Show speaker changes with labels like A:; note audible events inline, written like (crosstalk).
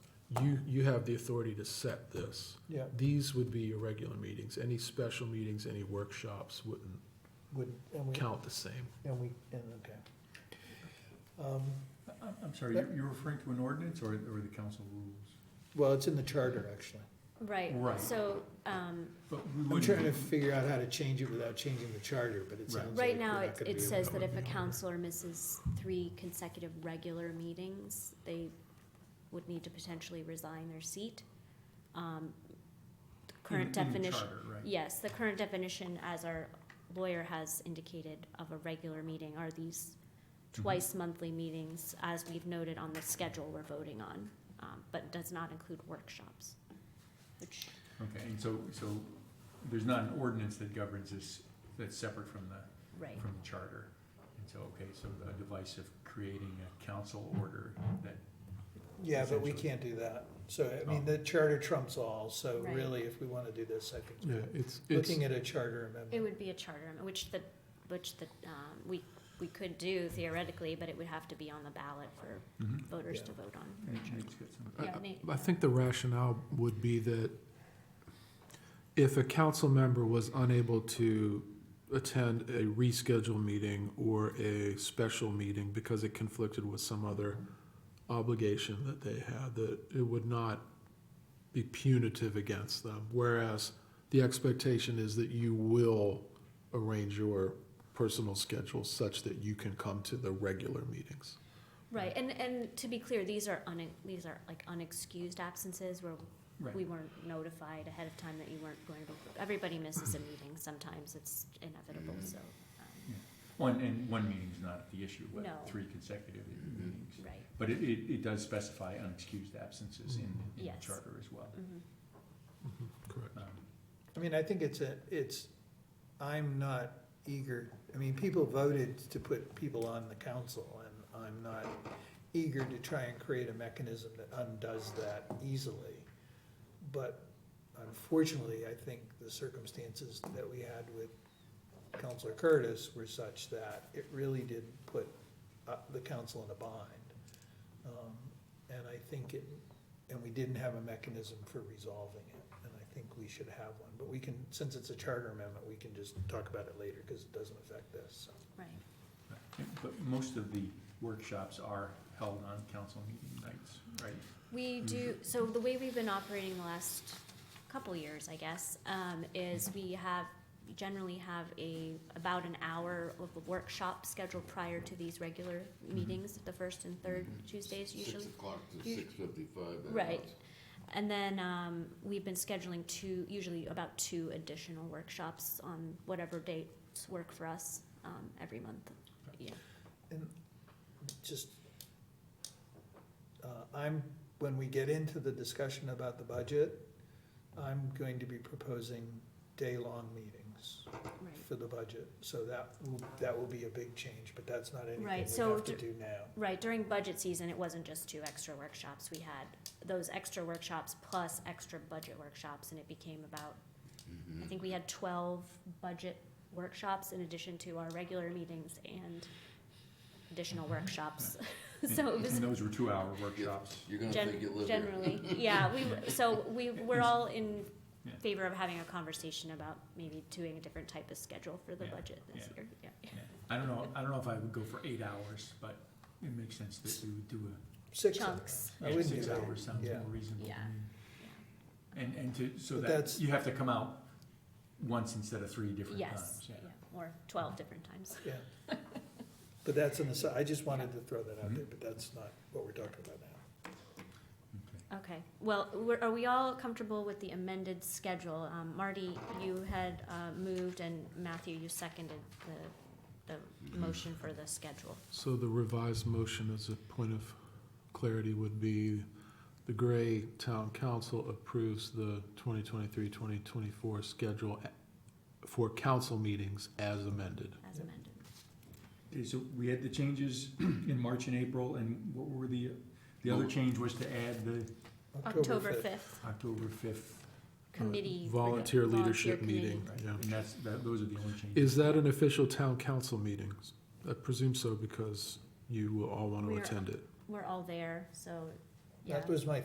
A: you, you have the authority to set this.
B: Yeah,
A: These would be your regular meetings. Any special meetings, any workshops wouldn't
B: would, and we,
A: count the same.
B: and we, and, okay. Um,
C: I'm, I'm sorry, you- you're referring to an ordinance or, or the council rules?
B: Well, it's in the charter, actually.
D: Right.
C: Right.
D: So, um,
C: But we
B: I'm trying to
C: wouldn't,
B: figure out how to change it without changing the charter, but it
C: Right.
B: sounds like
D: right
B: we're not
D: now,
B: gonna
D: it,
B: be
D: it
B: able
D: says
B: to.
D: that if a counselor misses three consecutive regular meetings, they would need to potentially resign their seat. Um, the Current
C: in- in the
D: definition,
C: charter, right?
D: yes, the current definition, as our lawyer has indicated, of a regular meeting are these
C: Mhm.
D: twice monthly meetings, as we've noted on the schedule we're voting on, um, but does not include workshops, which
C: Okay, and so, so there's not an ordinance that governs this, that's separate from the,
D: Right,
C: from the charter. And so, okay, so a device of creating a council order that,
B: Yeah, but we
C: essentially.
B: can't do that. So, I mean, the charter trumps all, so
D: Right.
B: really, if we wanna do this, I think,
A: Yeah,
B: it's-
A: it's, it's,
B: looking at a charter
D: it
B: amendment,
D: would be a charter, amendment, which the, which the, um, we, we could do theoretically, but it would have to be on the ballot for
C: Mhm.
D: voters
B: Yeah.
D: to vote on.
C: and Nate's got some-
A: I-
D: Yeah, Nate.
A: I think the rationale would be that if a council member was unable to attend a rescheduled meeting or a special meeting because it conflicted with some other obligation that they had, that it would not be punitive against them. Whereas the expectation is that you will arrange your personal schedule such that you can come to the regular meetings.
D: Right, and, and to be clear, these are un, these are like unexcused absences where we
C: Right,
D: weren't notified ahead of time that you weren't going to, everybody misses a meeting, sometimes it's inevitable, so, um,
C: one, and one meeting's not the issue, but
D: No.
C: three consecutive meetings.
D: right,
C: But it, it, it does specify unexcused absences in, in the
D: Yes.
C: charter as well.
D: mhm.
A: Correct.
C: Um,
B: I mean, I think it's a, it's, I'm not eager, I mean, people voted to put people on the council, and I'm not eager to try and create a mechanism that undoes that easily. But unfortunately, I think the circumstances that we had with Counselor Curtis were such that it really did put uh, the council in a bind. Um, And I think it, and we didn't have a mechanism for resolving it, and I think we should have one. But we can, since it's a charter amendment, we can just talk about it later, because it doesn't affect this, so.
D: right.
C: But most of the workshops are held on council meeting nights, right?
D: We do, so the way we've been operating the last couple years, I guess, um, is we have, we generally have a, about an hour of a workshop scheduled prior to these regular meetings, the first and third Tuesdays usually.
E: Six o'clock to
D: Us-
E: six fifty-five.
D: Right. And then, um, we've been scheduling two, usually about two additional workshops on whatever dates work for us, um, every month. Yeah,
B: And just, uh, I'm, when we get into the discussion about the budget, I'm going to be proposing day-long meetings
D: right.
B: for the budget. So that, will- that will be a big change, but that's not anything we
D: Right, so
B: have to do now.
D: Right, during budget season, it wasn't just two extra workshops, we had those extra workshops plus extra budget workshops, and it became about, I think we had twelve budget workshops in addition to our regular meetings and additional workshops. (laughs) (laughs) So it
C: And-
D: was
C: And those were two-hour workshops.
E: You're gonna
D: Gen-
E: think you live here.
D: generally, yeah, we, so we, we're all in
C: Yeah.
D: favor of having a conversation about maybe doing a different type of schedule for the
C: Yeah,
D: budget this
C: yeah.
D: year, yeah.
C: Yeah. I don't know, I don't know if I would go for eight hours, but it makes sense that we would do
B: Six
D: Chunks.
B: hours. I
C: a,
B: wouldn't do
C: six
B: that.
C: hours sounds more
B: Yeah.
C: reasonable to
D: Yeah.
C: me. And, and to, so
B: But
C: that,
B: that's-
C: you have to come out once instead of three different
D: Yes,
C: times,
D: yeah,
C: yeah.
D: or twelve different times.
B: Yeah. But that's an aside, I just wanted to throw that out there, but that's not what we're talking about now.
C: Okay.
D: Okay, well, we're, are we all comfortable with the amended schedule? Um, Marty, you had, uh, moved and Matthew, you seconded the, the motion for the schedule.
A: So the revised motion as a point of clarity would be the Gray Town Council approves the 2023-2024 schedule a- for council meetings as amended.
D: As amended.
C: Okay, so we had the changes (clears throat) in March and April, and what were the, the other change was to add the
D: October fifth,
C: October fifth,
D: committee.
A: Volunteer leadership
D: Volunteer
A: meeting,
C: right?
A: yeah.
C: And that's, that, those are the only changes.
A: Is that an official town council meeting? I presume so because you will all want to
D: We're-
A: attend it.
D: We're all there, so, yeah.
B: That was my